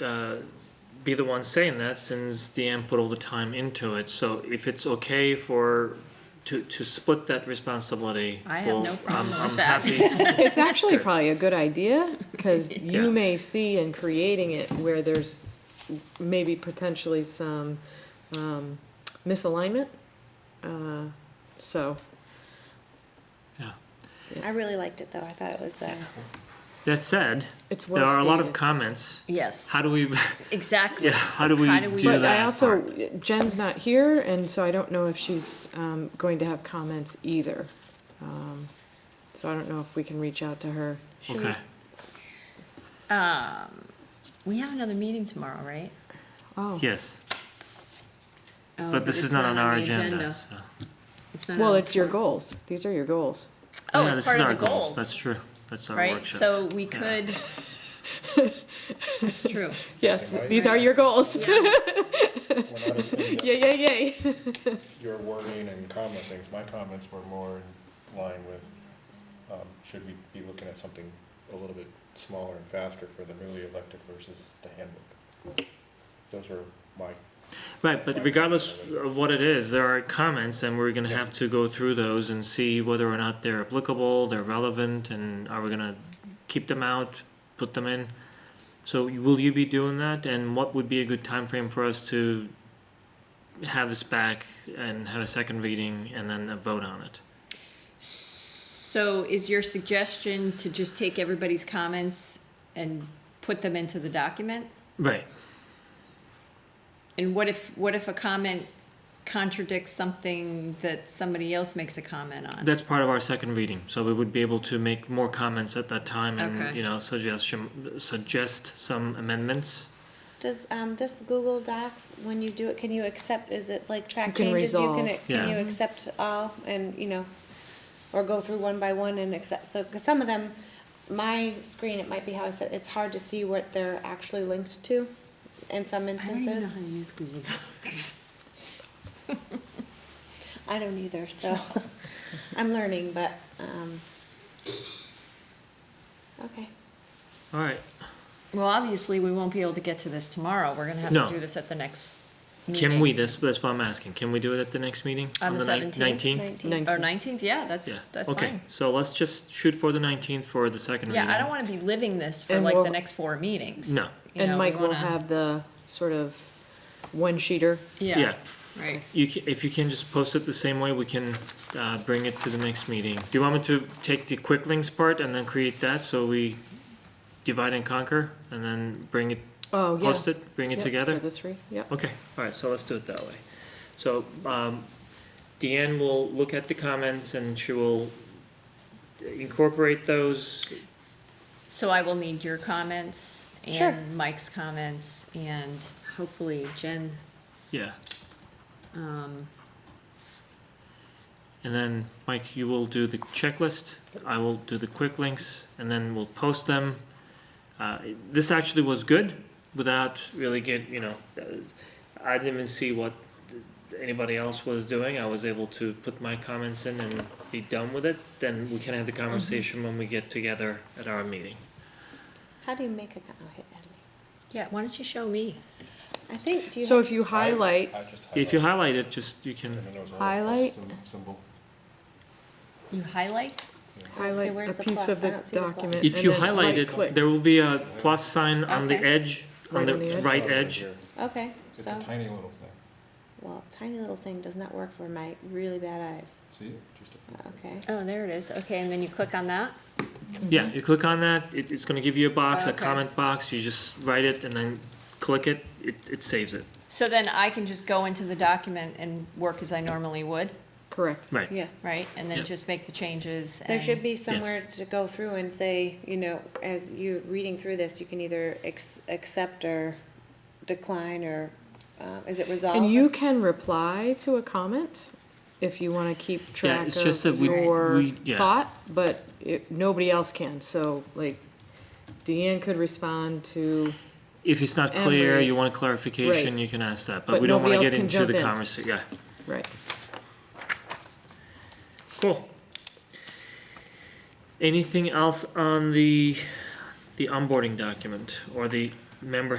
uh, be the one saying that since Deanne put all the time into it. So if it's okay for, to, to split that responsibility. I have well, no problem I'm- with I'm that. happy. It's actually probably a good idea, because Yeah. you may see in creating it where there's maybe potentially some um, misalignment. Uh, So, Yeah. I really liked it though. I thought it was. Uh, That said, It's there well are a lot of stated. comments. Yes. How do we, Exactly. yeah, how do we How do we- do but I that also, part? Jen's not here, and so I don't know if she's um, going to have comments either. Um, So I don't know if we can reach out to her. should we- Okay, Um, We have another meeting tomorrow, right? Oh, yes, Oh, but this it's is not on the our agenda, so. It's not well, on- it's your goals. These are your goals. Oh, Yeah, it's this part is of our the goals. That's true, that's our Right, workshop. so we could. It's true. Yes, these are your goals. Yeah. When I was in Yay, yay, yay. your wording and comment things, my comments were more in line with, um, should we be looking at something a little bit smaller and faster for the newly elected versus the handbook? Those were my, Right, but regardless of what it is, there are comments, and we're gonna have to go through those and see whether or not they're applicable, they're relevant, and are we gonna keep them out, put them in? So will you be doing that, and what would be a good time frame for us to have this back and have a second reading and then a vote on it? So is your suggestion to just take everybody's comments and put them into the document? Right, And what if, what if a comment contradicts something that somebody else makes a comment on? that's part of our second reading, so we would be able to make more comments at that time and, Okay. you know, suggestion, suggest some amendments. Does um, this Google Docs, when you do it, can you accept? Is it like track You can changes? You resolve. can, can Yeah. you accept all and you know, or go through one by one and accept? So because some of them, my screen, it might be how I said it's hard to see what they're actually linked to, in some I don't even know instances. how to use Google Docs. I don't either, so I'm learning, but um, okay. All right, Well, obviously, we won't be able to get to this tomorrow. We're gonna have No. to do this at the next meeting. Can we, that's, that's what I'm asking, can we do it at the next meeting? On the nine- 17th? 19th? Nineteen. Or nineteenth, yeah, that's, Yeah, that's okay, fine. so let's just shoot for the nineteenth for the second reading. Yeah, I don't wanna be living this for And like the we'll- next four meetings. No. You know, And we Mike will wanna- have the sort of one-sheeter. Yeah, Yeah, right. you can, if you can just post it the same way, we can, uh, bring it to the next meeting. Do you want me to take the quick links part and then create that, so we divide and conquer, and then bring it, Oh, yeah. post it, bring it Yep, together? So the three, yep. Okay, all right, so let's do it that way. So, um, Deanne will look at the comments and she will incorporate those. So I will need your comments Sure. and Mike's comments and hopefully Jen, Yeah, um, and then Mike, you will do the checklist. I will do the quick links, and then we'll post them. Uh, this actually was good without really get you know. uh, I didn't even see what anybody else was doing. I was able to put my comments in and be done with it. Then we can have the conversation when we get together at our meeting. How do you make a? co- Oh, hit edit. yeah, why don't you show me? I think. Do you? So have- if you highlight, I just If you highlighted, highlight it, just you can. and then there was a little plus Highlight. sym- Symbol. You highlight? highlight where's a the piece plus? of I the don't see the plus. document. If and you then highlight right-click. it, there will be a plus sign on the Okay. edge, on Right the on the edge. right It's not edge. here. okay, It's so a tiny little thing. well, tiny little thing does not work for my really bad eyes. See, just a. Okay. Oh, there it is. Okay, and then you click on that? Mm-hmm. Yeah, you click on that, it, it's gonna give you a box, a Okay. comment box, you just write it and then click it, it, it saves it. So then I can just go into the document and work as I normally would, Correct. Right, Yeah. right? And then Yep. just make the changes and. There should be somewhere to go through and say, you know, as you're reading through this, you can either ex- accept or decline or, uh, is it resolved? And you can reply to a comment if you want to keep track it's just that of we- your we- yeah. thought, but it- nobody else can. So like Deanne could respond to, if it's not clear, you Emery's- want clarification, right. you can ask that, but But we don't nobody wanna else get can into jump the in. conversa- yeah, right. cool. Anything else on the, the onboarding document or the member